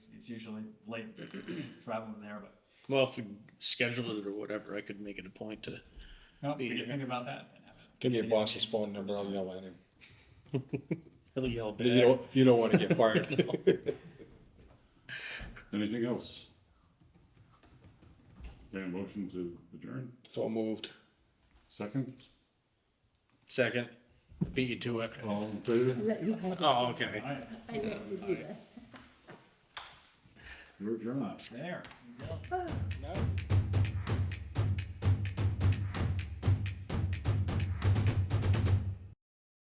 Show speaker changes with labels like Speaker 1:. Speaker 1: usually late traveling there, but
Speaker 2: Well, if we scheduled it or whatever, I could make it a point to.
Speaker 1: no, we
Speaker 2: Be
Speaker 1: can
Speaker 2: here.
Speaker 1: think about that. and have it.
Speaker 3: Give me your boss's phone number, I'll yell at him.
Speaker 2: He'll yell back.
Speaker 3: You don't, you don't wanna get fired.
Speaker 4: Anything else? Okay, motion to adjourn,
Speaker 3: So moved.
Speaker 4: second,
Speaker 2: Second, beat you to it.
Speaker 4: all in favor?
Speaker 5: Let you have it.
Speaker 2: Oh, okay.
Speaker 1: All right,
Speaker 5: I let you do that.
Speaker 4: We're adjourned.
Speaker 1: there.
Speaker 5: Oh.
Speaker 2: No.